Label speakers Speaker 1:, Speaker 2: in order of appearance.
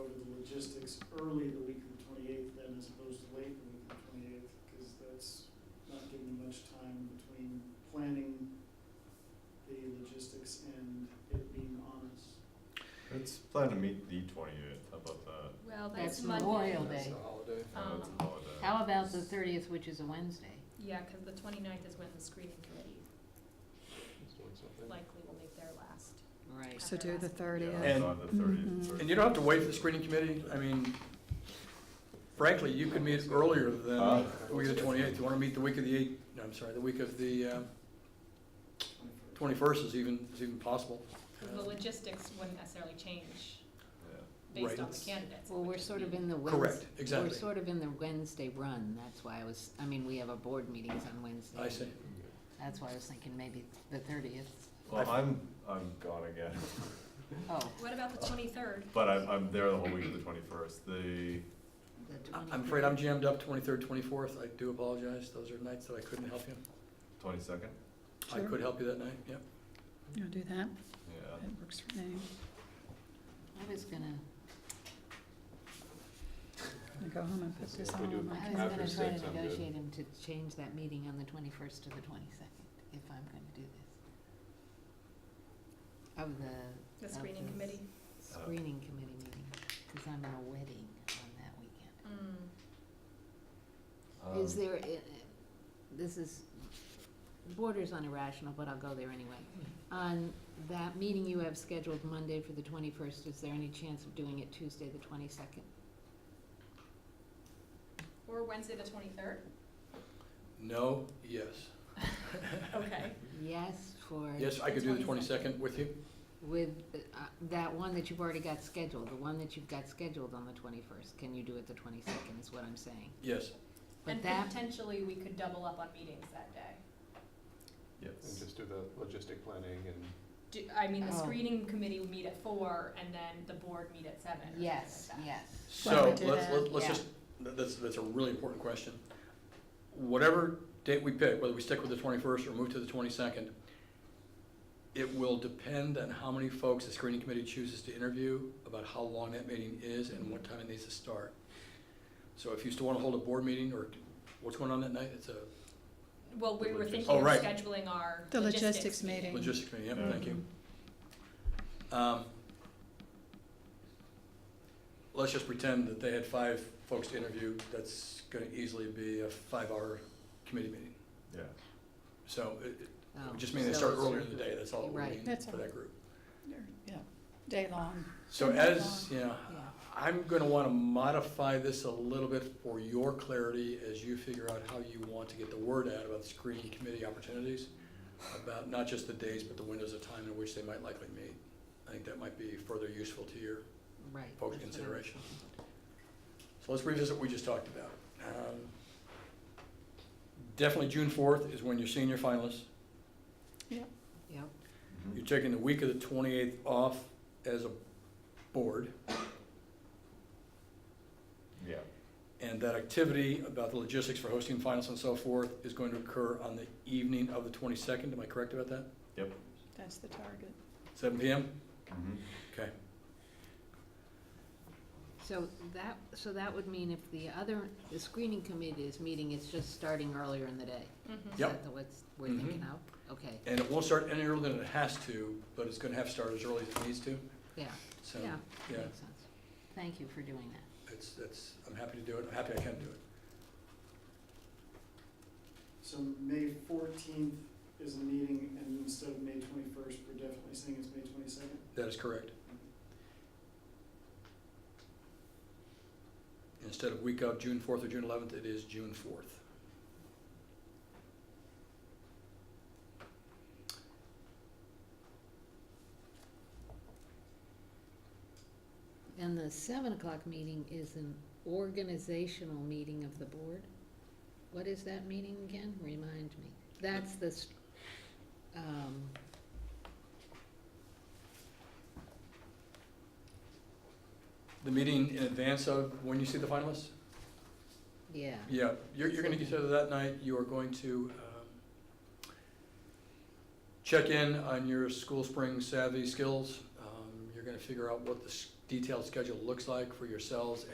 Speaker 1: logistics early the week of the twenty-eighth then as opposed to late the week of the twenty-eighth, because that's not giving them much time between planning the logistics and it being on us.
Speaker 2: Let's plan to meet the twenty-eighth, how about that?
Speaker 3: Well,
Speaker 4: That's
Speaker 3: that's Monday.
Speaker 4: Memorial
Speaker 2: That's
Speaker 4: Day.
Speaker 2: a
Speaker 5: holiday.
Speaker 2: Uh, it's
Speaker 3: Um,
Speaker 2: a holiday.
Speaker 4: How about the thirtieth, which is a Wednesday?
Speaker 3: Yeah, because the 29th is when the screening committee
Speaker 5: It's doing something.
Speaker 3: likely will make their last.
Speaker 4: Right.
Speaker 6: So do the
Speaker 2: Yeah,
Speaker 6: thirtieth.
Speaker 2: it's
Speaker 7: And-
Speaker 2: on the thirtieth.
Speaker 6: Mhm.
Speaker 7: And you don't have to wait for the screening committee, I mean, frankly, you could meet earlier than
Speaker 2: Uh.
Speaker 7: the week of the twenty-eighth, you wanna meet the week of the eight, no, I'm sorry, the week of the, uh, twenty-first is even, is even possible.
Speaker 3: The logistics wouldn't necessarily change
Speaker 7: Right.
Speaker 3: based on the candidates. It
Speaker 4: Well,
Speaker 3: would
Speaker 4: we're
Speaker 3: just
Speaker 4: sort of
Speaker 3: be-
Speaker 4: in the Wednesday.
Speaker 7: Correct,
Speaker 4: We're
Speaker 7: exactly,
Speaker 4: sort of in the Wednesday run, that's why I was, I mean, we have our board meetings on Wednesday.
Speaker 7: I see.
Speaker 4: That's why I was thinking maybe the thirtieth.
Speaker 2: Well, I'm, I'm gone again,
Speaker 4: Oh,
Speaker 3: What about the 23rd?
Speaker 2: but I'm, I'm there the whole week of the twenty-first, the,
Speaker 4: the
Speaker 7: I-
Speaker 4: twenty.
Speaker 7: I'm afraid I'm jammed up twenty-third, twenty-fourth, I do apologize, those are nights that I couldn't help you.
Speaker 2: Twenty-second?
Speaker 7: I
Speaker 6: Sure.
Speaker 7: could help you that night, yeah.
Speaker 6: You'll do that?
Speaker 2: Yeah.
Speaker 6: That works for me.
Speaker 4: I was gonna,
Speaker 6: I'm gonna go home and put
Speaker 5: So
Speaker 6: this
Speaker 5: if
Speaker 6: all
Speaker 5: we do
Speaker 6: on my
Speaker 4: I was
Speaker 5: after
Speaker 4: gonna
Speaker 6: calendar.
Speaker 4: try
Speaker 5: six,
Speaker 4: to
Speaker 5: I'm good.
Speaker 4: negotiate him to change that meeting on the twenty-first to the twenty-second, if I'm gonna do this. Of
Speaker 7: Uh,
Speaker 4: the
Speaker 3: The
Speaker 4: Of
Speaker 3: screening
Speaker 4: the-
Speaker 3: committee?
Speaker 4: screening committee meeting, cause I'm in a wedding on that weekend.
Speaker 3: Mm.
Speaker 4: Is
Speaker 2: Um,
Speaker 4: there, i- i- this is, borders on irrational, but I'll go there anyway. On that meeting you have scheduled Monday for the twenty-first, is there any chance of doing it Tuesday, the twenty-second?
Speaker 3: Or Wednesday, the 23rd?
Speaker 7: No, yes.
Speaker 3: Okay.
Speaker 4: Yes, for,
Speaker 7: Yes, I could do the
Speaker 3: 22nd.
Speaker 7: twenty-second with you,
Speaker 4: with, uh, that one that you've already got scheduled, the one that you've got scheduled on the twenty-first, can you do it the twenty-second, is what I'm saying.
Speaker 7: yes.
Speaker 4: But
Speaker 3: And
Speaker 4: that,
Speaker 3: potentially, we could double up on meetings that day.
Speaker 5: And
Speaker 2: Yes.
Speaker 5: just do the logistic planning and
Speaker 3: Do, I mean, the
Speaker 4: Oh.
Speaker 3: screening committee would meet at four, and then the board meet at seven. or something like
Speaker 4: yes,
Speaker 3: that.
Speaker 4: yes.
Speaker 6: Why
Speaker 7: So,
Speaker 6: don't we do
Speaker 7: let's,
Speaker 6: that?
Speaker 7: let's- let's
Speaker 4: Yeah.
Speaker 7: just, tha- that's, that's a really important question. Whatever date we pick, whether we stick with the twenty-first or move to the twenty-second, it will depend on how many folks the screening committee chooses to interview, about how long that meeting is and what time it needs to start. So if you still wanna hold a board meeting or, what's going on that night? It's a
Speaker 3: Well, we were
Speaker 2: Logistics.
Speaker 3: thinking
Speaker 7: Oh,
Speaker 3: of
Speaker 7: right.
Speaker 3: scheduling our
Speaker 6: The
Speaker 3: logistics
Speaker 6: logistics
Speaker 3: meeting.
Speaker 6: meeting.
Speaker 7: logistics meeting,
Speaker 2: Yeah.
Speaker 7: yep, thank you. Um, Let's just pretend that they had five folks to interview, that's gonna easily be a five-hour committee meeting.
Speaker 2: Yeah,
Speaker 7: So it, it
Speaker 4: Oh,
Speaker 7: would just means they
Speaker 4: so
Speaker 7: start
Speaker 4: it's-
Speaker 7: earlier in the day, that's all it
Speaker 4: Right.
Speaker 7: would mean
Speaker 6: That's
Speaker 7: for
Speaker 6: all.
Speaker 7: that group.
Speaker 6: Yeah, day long.
Speaker 7: So
Speaker 6: Then move
Speaker 7: as, yeah,
Speaker 4: Yeah.
Speaker 7: I'm gonna wanna modify this a little bit for your clarity as you figure out how you want to get the word out about screening committee opportunities, about not just the days, but the windows of time in which they might likely meet. I think that might be further useful to your
Speaker 4: Right.
Speaker 7: folks'
Speaker 4: that's what I'm-
Speaker 7: consideration. So let's revisit what we just talked about. Um, Definitely June fourth is when you're seeing your finalists.
Speaker 4: Yep,
Speaker 2: Mhm.
Speaker 7: You're taking the week of the twenty-eighth off as a board.
Speaker 2: yeah,
Speaker 7: And that activity about the logistics for hosting finals and so forth is going to occur on the evening of the twenty-second, am I correct about that?
Speaker 6: That's the target.
Speaker 7: Seven PM?
Speaker 2: mhm.
Speaker 7: Okay.
Speaker 4: so that, so that would mean if the other, the screening committee is meeting, it's just starting earlier in the day.
Speaker 3: Mhm.
Speaker 4: Is
Speaker 7: Yep.
Speaker 4: that the what's we're
Speaker 7: Mhm.
Speaker 4: thinking of? Okay,
Speaker 7: And it won't start any earlier than it has to, but it's gonna have to start as early as it needs to,
Speaker 4: yeah,
Speaker 7: so,
Speaker 4: Yeah.
Speaker 7: yeah,
Speaker 4: makes sense. Thank you for doing that.
Speaker 7: it's, that's, I'm happy to do it, I'm happy I can do it.
Speaker 1: So May fourteenth is the meeting, and instead of May twenty-first, we're definitely saying it's May twenty-second?
Speaker 7: That is correct. Instead of week of June fourth or June eleventh, it is June fourth.
Speaker 4: And the seven o'clock meeting is an organizational meeting of the board? What is that meeting again? Remind me. That's the, s- um,
Speaker 7: The meeting in advance of when you see the finalists?
Speaker 4: yeah,
Speaker 7: Yeah, you're, you're gonna consider that night, you are going to, um, check in on your school spring savvy skills. Um, you're gonna figure out what the, s- detailed schedule looks like for yourselves